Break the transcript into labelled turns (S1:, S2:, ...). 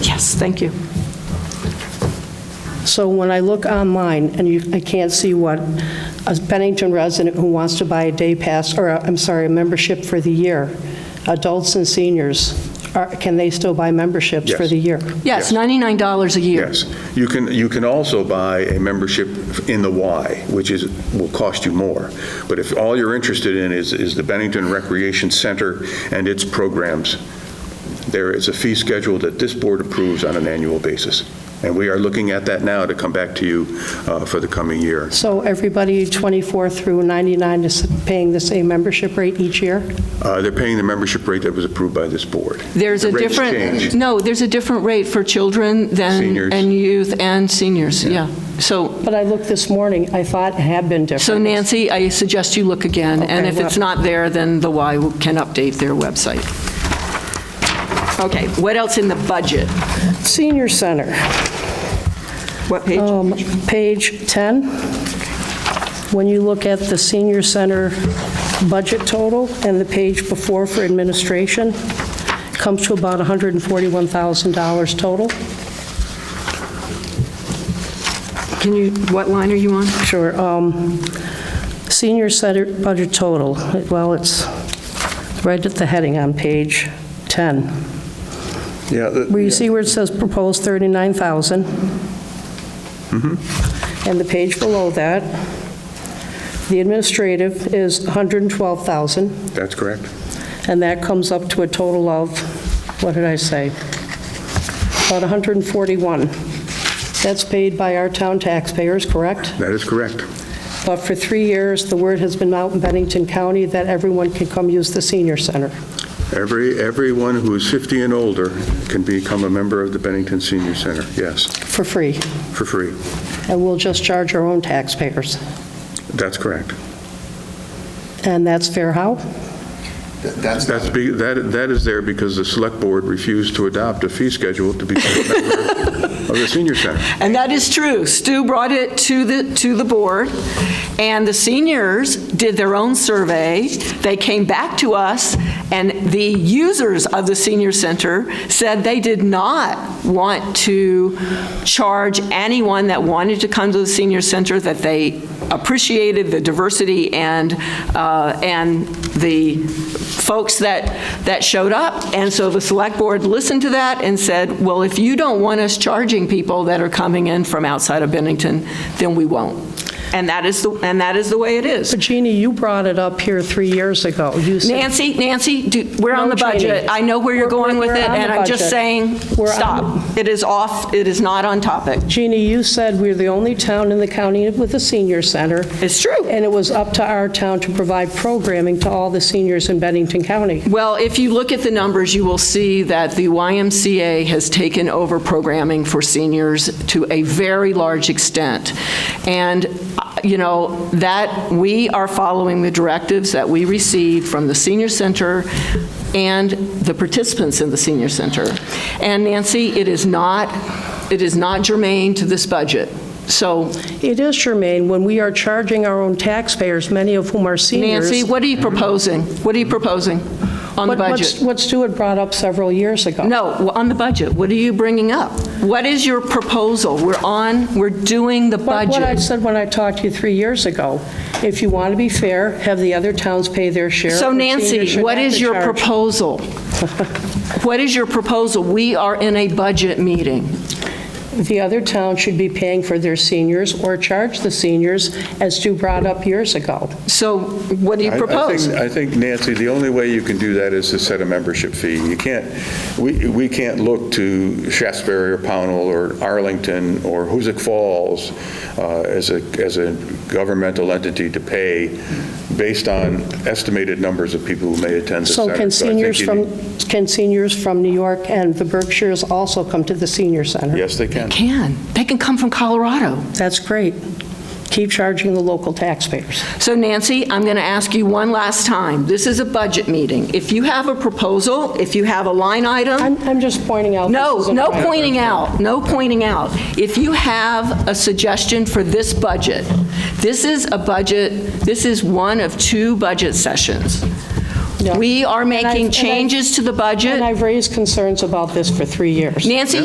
S1: Yes, thank you.
S2: So when I look online, and you, I can't see what a Bennington resident who wants to buy a day pass, or, a- I'm sorry, a membership for the year, adults and seniors, are- can they still buy memberships for
S3: Yes.
S2: the year?
S1: Yes,
S3: Yes.
S1: $99 a year.
S3: Yes. You can, you can also buy a membership in the Y, which is, will cost you more. But if all you're interested in is, is the Bennington Recreation Center and its programs, there is a fee schedule that this board approves on an annual basis. And we are looking at that now to come back to you uh, for the coming year.
S2: So everybody 24 through 99 is paying the same membership rate each year?
S3: Uh, They're paying the membership rate that was approved by this board.
S1: There's
S3: The
S1: a
S3: rates
S1: different,
S3: change.
S1: no, there's a different rate for children than,
S3: Seniors.
S1: and youth and seniors, yeah. So,
S2: But I looked this morning, I thought it had been different.
S1: so Nancy, I suggest you look again, and
S2: Okay,
S1: if it's
S2: well-
S1: not there, then the Y can update their website. Okay, what else in the budget?
S2: Senior Center.
S1: What page?
S2: Um, Page 10, when you look at the senior center budget total and the page before for administration, comes to about $141,000 total.
S1: Can you, what line are you on?
S2: Sure. um, Senior center budget total, well, it's right at the heading on page 10,
S3: Yeah, the-
S2: where you see where it says proposed 39,000. And the page below that, the administrative is 112,000.
S3: That's correct.
S2: And that comes up to a total of, what did I say? About 141. That's paid by our town taxpayers, correct?
S3: That is correct.
S2: But for three years, the word has been out in Bennington County that everyone can come use the senior center.
S3: Every, everyone who is 50 and older can become a member of the Bennington Senior Center, yes,
S2: For free.
S3: for free.
S2: And we'll just charge our own taxpayers.
S3: That's correct.
S2: And that's fair how?
S4: Th- That's,
S3: That's, be- that that is there because the Select Board refused to adopt a fee schedule to become a member of the Senior Center.
S1: And that is true. Stu brought it to the, to the board, and the seniors did their own survey. They came back to us, and the users of the senior center said they did not want to charge anyone that wanted to come to the senior center, that they appreciated the diversity and, uh, and the folks that, that showed up. And so the select board listened to that and said, well, if you don't want us charging people that are coming in from outside of Bennington, then we won't. And that is, the and that is the way it is.
S2: But Jeannie, you brought it up here three years ago. You said-
S1: Nancy, Nancy, do- we're on
S2: No
S1: the budget.
S2: training.
S1: I know where
S2: We're-
S1: you're going with
S2: we're
S1: it,
S2: on
S1: and
S2: the
S1: I'm just
S2: budget.
S1: saying,
S2: We're on-
S1: stop. It is off, it is not on topic.
S2: Jeannie, you said we're the only town in the county with a senior center.
S1: It's true.
S2: And it was up to our town to provide programming to all the seniors in Bennington County.
S1: Well, if you look at the numbers, you will see that the YMCA has taken over programming for seniors to a very large extent. And, uh, you know, that, we are following the directives that we received from the senior center and the participants in the senior center. And Nancy, it is not, it is not germane to this budget. So
S2: It is germane when we are charging our own taxpayers, many of whom are seniors.
S1: Nancy, what are you proposing? What are you proposing on the
S2: What-
S1: budget?
S2: what's- What Stu had brought up several years ago.
S1: No, w- on the budget, what are you bringing up? What is your proposal? We're on, we're doing the
S2: What- What I
S1: budget.
S2: said when I talked to you three years ago, if you want to be fair, have the other towns pay their share.
S1: So
S2: or seniors
S1: Nancy,
S2: should
S1: what
S2: have
S1: is
S2: to
S1: your
S2: charge.
S1: proposal? What is your proposal? We are in a budget meeting.
S2: The other town should be paying for their seniors or charge the seniors, as Stu brought up years ago.
S1: So what do you
S3: I- I think-
S1: propose?
S3: I think, Nancy, the only way you can do that is to set a membership fee. You can't, we we can't look to Shasberry or Pownell or Arlington or Hoosick Falls uh, as a, as a governmental entity to pay based on estimated numbers of people who may attend the
S2: So can
S3: center. I think
S2: seniors
S3: you
S2: from,
S3: need-
S2: can seniors from New York and the Berkshires also come to the senior center?
S3: Yes, they can.
S1: Can, they can come from Colorado.
S2: That's great. Keep charging the local taxpayers.
S1: So Nancy, I'm going to ask you one last time. This is a budget meeting. If you have a proposal, if you have a line item.
S2: I'm, I'm just pointing out. this
S1: Um, No,
S2: isn't
S1: no
S2: right.
S1: pointing out, no pointing out. If you have a suggestion for this budget, this is a budget, this is one of two budget sessions.
S2: No.
S1: We are
S2: And I've- and
S1: making
S2: I've-
S1: changes to the
S2: And
S1: budget.
S2: I've raised concerns about this for three years.
S1: Nancy,